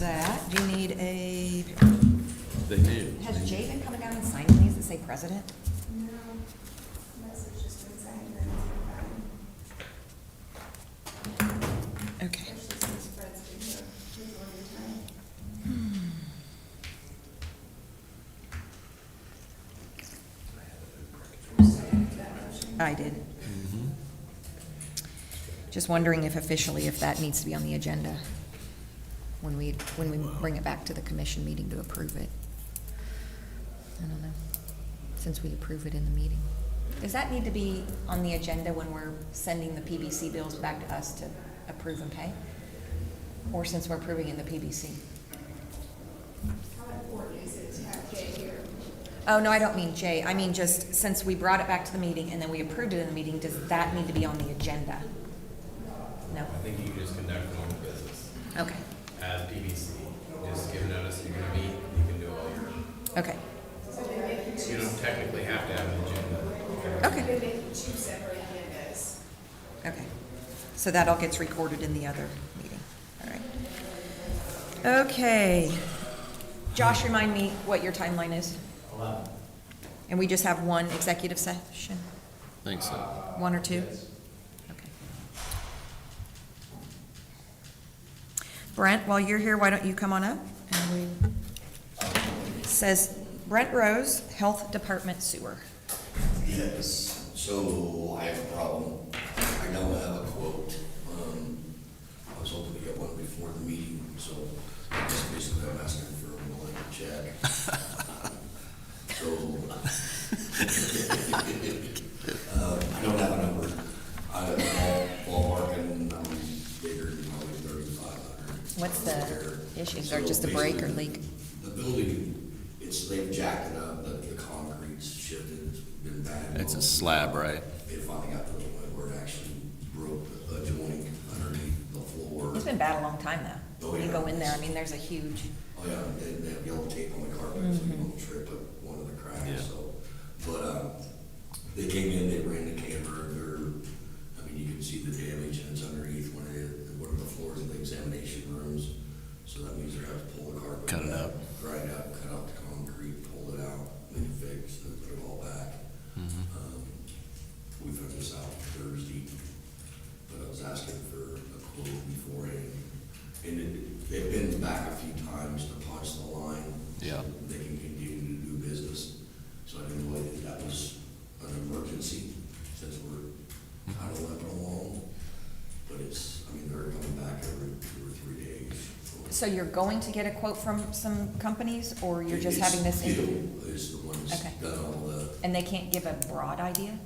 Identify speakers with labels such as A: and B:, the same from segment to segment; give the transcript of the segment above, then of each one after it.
A: that. Do you need a,
B: They knew.
A: has Jay been coming down and signing these that say president?
C: No, those are just been signed and it's
A: Okay.
C: been, especially since Fred's been here, he's on your time.
A: Hmm. I did. Just wondering if officially, if that needs to be on the agenda when we, when we bring it back to the commission meeting to approve it. I don't know, since we approve it in the meeting. Does that need to be on the agenda when we're sending the PBC bills back to us to approve and pay? Or since we're approving in the PBC? Oh, no, I don't mean Jay. I mean just since we brought it back to the meeting and then we approved it in the meeting, does that need to be on the agenda? No?
D: I think you can just conduct normal business
A: Okay,
D: as PBC. Just give notice that you're gonna meet, you can do all your,
A: okay,
D: you don't technically have to have an agenda.
A: okay, okay. So that all gets recorded in the other meeting, all right. Okay. Josh, remind me what your timeline is? Eleven. And we just have one executive session?
B: Think so.
A: One or two? Okay. Brent, while you're here, why don't you come on up? And we- Says Brent Rose, Health Department Sewer.
E: Yes, so I have a problem. I now have a quote. Um, I was hoping to get one before the meeting, so just basically I'm asking for a blank check. So. um, I don't have a number. I, I'm ballparking, I'm bigger than probably thirty-five hundred.
A: What's the issue? Is there just a break or leak?
E: The building, it's, they've jacked it up, the, the concrete's shifted, it's been bad.
B: It's a slab, right?
E: It finally got to the point where it actually broke a joint underneath the floor.
A: It's been bad a long time, though. When you go in there, I mean, there's a huge,
E: Oh, yeah, they, they have yellow tape on the carpet, so you don't trip up one of the
B: Yeah.
E: cracks, so. But, um, they came in, they ran the camera, they're, I mean, you can see the damage and it's underneath one of the, one of the floors of the examination rooms. So that means they're gonna have to pull the carpet.
B: Cut it
E: back,
B: up.
E: Grind up, cut out the concrete, pull it out, make it fix, and put it all back.
B: Mm-hmm.
E: Um, We found this out Thursday, but I was asking for a quote beforehand. And it, they've been back a few times to punch the line. so
B: Yeah.
E: They can continue to do business. So I didn't believe that that was an emergency since we're kind of limping along. But it's, I mean, they're coming back every two or three days.
A: so you're going to get a quote from some companies, or you're just
E: It's
A: having this? in-
E: Gil is the one that's
A: Okay.
E: done all the,
A: And they can't give a broad idea?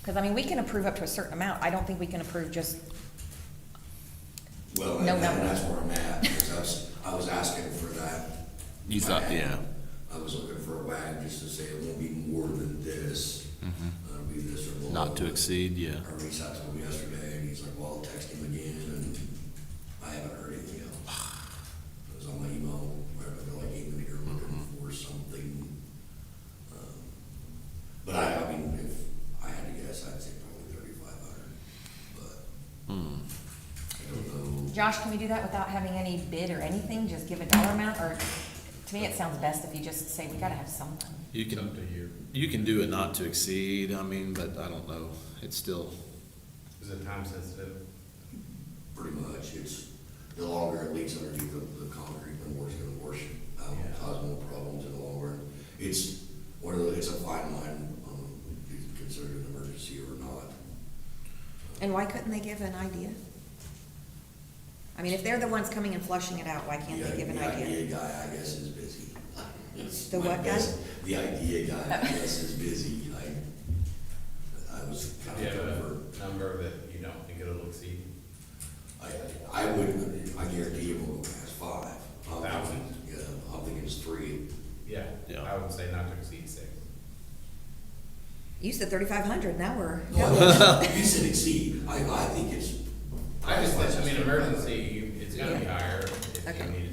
A: Because, I mean, we can approve up to a certain amount. I don't think we can approve just,
E: well, and
A: No
E: that- and
A: number.
E: that's where I'm at, because I was, I was asking for that.
B: You thought-
E: wag.
B: yeah.
E: I was looking for a wag, just to say it won't be more than this, Uh, it'll be this or below.
B: Mm-hmm. Not to exceed, yeah.
E: I reached out to him yesterday, and he's like, well, I'll text him again, and I haven't heard anything else. It was on my email, where I feel like even if you're looking
B: Mm-hmm.
E: for something. um, But I, I mean, if I had to guess, I'd say probably thirty-five hundred, but
B: Hmm.
E: I don't know.
A: Josh, can we do that without having any bid or anything? Just give a dollar amount, or, to me, it sounds best if you just say, we gotta have something.
B: You
D: It's
B: can,
D: up to you.
B: you can do a not to exceed, I mean, but I don't know. It's still,
D: Is it time sensitive?
E: Pretty much, it's, the longer it leaks underneath the, the concrete, the more it's gonna wash out,
D: Yeah.
E: cause more problems in the long run. It's, one of the, it's a fine line, um, if you consider it an emergency or not.
A: And why couldn't they give an idea? I mean, if they're the ones coming and flushing it out, why can't they
E: The-
A: give an
E: The
A: idea?
E: idea guy, I guess, is busy. It's
A: The
E: my
A: what guy?
E: best- The idea guy, I guess, is busy, like, I was
D: Do
E: kind
D: you
E: of
D: have
E: over,
D: a number that you don't think it'll exceed?
E: I, I wouldn't, I guarantee you won't pass five. I'm thinking-
D: Thousand?
E: Yeah, I'm thinking it's three.
D: Yeah,
B: Yeah.
D: I would say not to exceed six.
A: You said thirty-five hundred, now we're.
E: You said exceed, I, I think it's.
D: I just, I mean, emergency, you- it's gonna be higher if
A: Okay.
D: you need